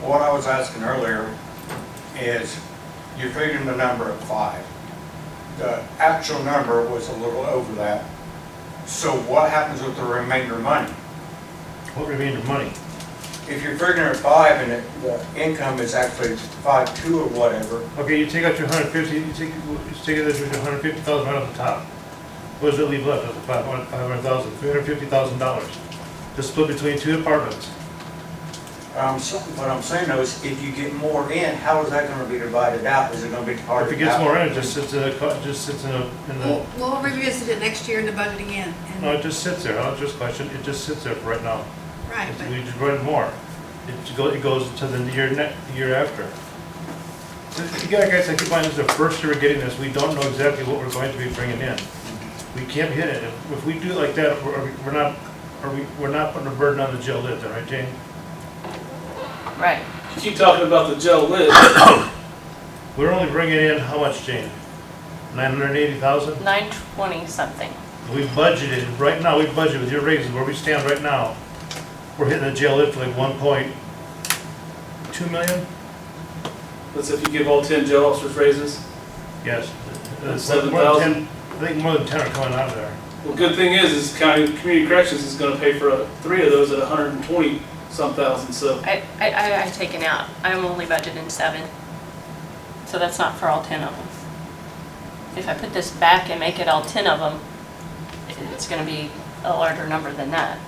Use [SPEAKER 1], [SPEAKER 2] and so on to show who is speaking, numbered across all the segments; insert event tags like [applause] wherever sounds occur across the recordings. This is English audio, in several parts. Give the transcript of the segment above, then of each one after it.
[SPEAKER 1] What I was asking earlier is, you figured the number at five. The actual number was a little over that. So what happens with the remainder money?
[SPEAKER 2] What remainder money?
[SPEAKER 1] If you're figuring at five and it- the income is actually five two or whatever,
[SPEAKER 2] Okay, you take out your hundred fifty, you take, you take out your hundred fifty thousand right off the top. What does it leave left of the five hundred, five hundred thousand, three hundred fifty thousand dollars? Just split between two apartments.
[SPEAKER 1] um, so- what I'm saying though is, if you get more in, how is that gonna be divided out? Is it gonna be
[SPEAKER 2] Or
[SPEAKER 1] part
[SPEAKER 2] if
[SPEAKER 1] of?
[SPEAKER 2] it gets more in, it just sits in a, co- just sits in a, in
[SPEAKER 3] We'll
[SPEAKER 2] the,
[SPEAKER 3] we'll revisit it next year in the budget again. and-
[SPEAKER 2] no, it just sits there. I'll just question, it just sits there for right now.
[SPEAKER 3] Right,
[SPEAKER 2] We
[SPEAKER 3] but
[SPEAKER 2] just run more. It just go, it goes to the year ne, the year after. This- Again, guys, I keep finding this is the first year we're getting this. We don't know exactly what we're going to be bringing in. We can't hit it. If- If we do it like that, we're, we're not, are we, we're not putting a burden on the jail lid then, right, Jane?
[SPEAKER 4] Right.
[SPEAKER 5] You keep talking about the jail lid.
[SPEAKER 2] We're only bringing in how much, Jane? Nine hundred and eighty thousand?
[SPEAKER 4] Nine twenty something.
[SPEAKER 2] We budgeted, right now, we budgeted with your raises, where we stand right now, we're hitting the jail lid for like one point two million?
[SPEAKER 5] That's if you give all ten jail officers raises.
[SPEAKER 2] Yes.
[SPEAKER 5] That's
[SPEAKER 2] More than
[SPEAKER 5] 7,000?
[SPEAKER 2] 10 I think more than ten are coming out of there.
[SPEAKER 5] Well, good thing is, is county, community corrections is gonna pay for uh, three of those at a hundred and twenty some thousand, so.
[SPEAKER 4] I, I, I, I taken out. I'm only budgeting seven. So that's not for all ten of them. If I put this back and make it all ten of them, it- it's gonna be a larger number than that.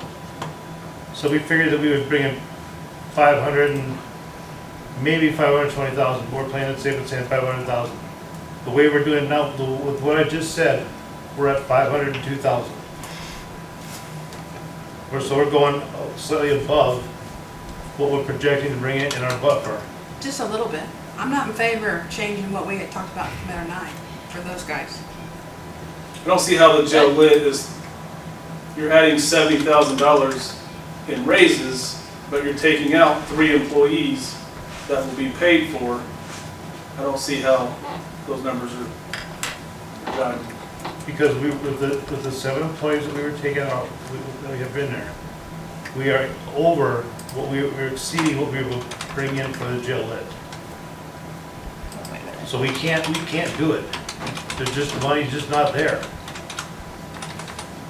[SPEAKER 2] So we figured that we would bring in five hundred and, maybe five hundred twenty thousand, we're playing it safe and saying five hundred thousand. The way we're doing now, the- with what I just said, we're at five hundred and two thousand. We're, so we're going slightly above what we're projecting to bring in in our buffer.
[SPEAKER 3] just a little bit. I'm not in favor of changing what we had talked about in Committee Nine for those guys.
[SPEAKER 5] I don't see how the jail lid is, you're adding seventy thousand dollars in raises, but you're taking out three employees that will be paid for. I don't see how those numbers are done.
[SPEAKER 2] Because we, with the, with the seven employees that we were taking out, we- that we have been there, we are over what we, we're exceeding what we will bring in for the jail lit. So we can't, we can't do it. There's just, money's just not there.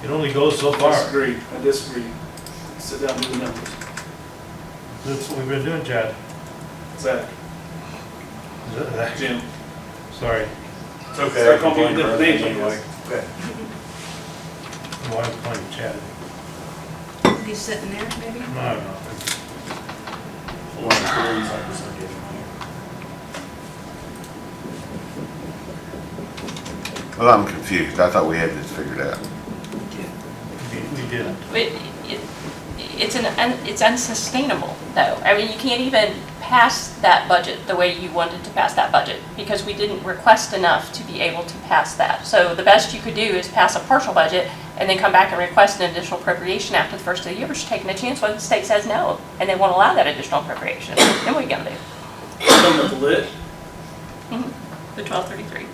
[SPEAKER 2] It only goes so
[SPEAKER 5] I
[SPEAKER 2] far.
[SPEAKER 5] disagree, I disagree. Sit down and do the numbers.
[SPEAKER 2] That's what we've been doing, Chad. [laughs]
[SPEAKER 5] Zach, Jim.
[SPEAKER 2] Sorry,
[SPEAKER 1] It's okay. I can
[SPEAKER 5] Start calling
[SPEAKER 1] blame
[SPEAKER 5] people
[SPEAKER 1] her
[SPEAKER 5] different names, I
[SPEAKER 1] anyway.
[SPEAKER 5] guess.
[SPEAKER 1] Okay.
[SPEAKER 2] I'm always playing Chad.
[SPEAKER 3] He's sitting there, maybe?
[SPEAKER 2] I don't know.
[SPEAKER 1] One of the theories I was gonna give you.
[SPEAKER 6] Well, I'm confused. I thought we had this figured out.
[SPEAKER 2] We- We didn't.
[SPEAKER 4] But it, it's an, un- it's unsustainable though. I mean, you can't even pass that budget the way you wanted to pass that budget because we didn't request enough to be able to pass that. So the best you could do is pass a partial budget and then come back and request an additional appropriation after the first of the year, which you're taking a chance when the state says no and they won't allow that additional appropriation. Then what are you gonna do?
[SPEAKER 5] Come with the lid.
[SPEAKER 4] Mm-hmm. The twelve thirty-three.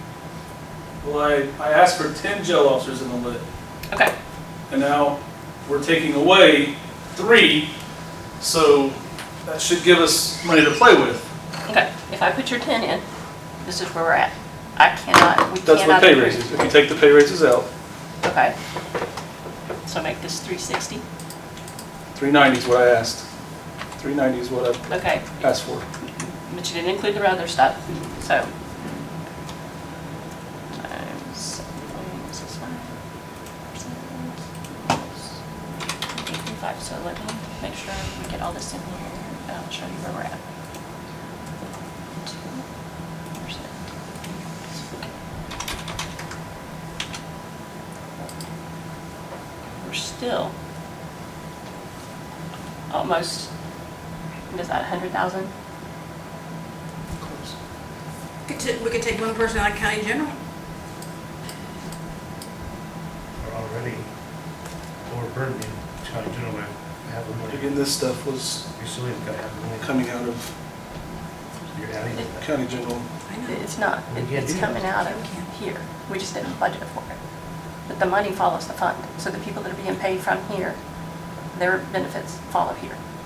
[SPEAKER 5] Well, I, I asked for ten jail officers in the lid,
[SPEAKER 4] Okay,
[SPEAKER 5] and now we're taking away three, so that should give us money to play with.
[SPEAKER 4] okay. If I put your ten in, this is where we're at. I cannot, we cannot.
[SPEAKER 5] That's what pay
[SPEAKER 4] approve.
[SPEAKER 5] raises, if you take the pay raises out,
[SPEAKER 4] Okay. So make this three sixty.
[SPEAKER 5] three ninety is what I asked. Three ninety is what I
[SPEAKER 4] Okay,
[SPEAKER 5] asked for.
[SPEAKER 4] but you didn't include the other stuff, so. Times, um, this is fine. Eighty-five, so let me make sure we get all this in here, and I'll show you where we're at. Two, where's it? We're still almost, what is that, hundred thousand?
[SPEAKER 3] Could ta- We could take one person out of county general.
[SPEAKER 2] We're already overburdened Chad, you know, I have the money.
[SPEAKER 5] Again, this stuff was
[SPEAKER 2] We still have got to have the money.
[SPEAKER 5] coming out of
[SPEAKER 2] You're adding to that.
[SPEAKER 5] county general.
[SPEAKER 3] I know.
[SPEAKER 4] It's not,
[SPEAKER 2] We
[SPEAKER 4] It-
[SPEAKER 2] can't
[SPEAKER 4] it's
[SPEAKER 2] do that.
[SPEAKER 4] coming out of here. We just didn't budget for it. But the money follows the fund, so the people that are being paid from here, their benefits follow here.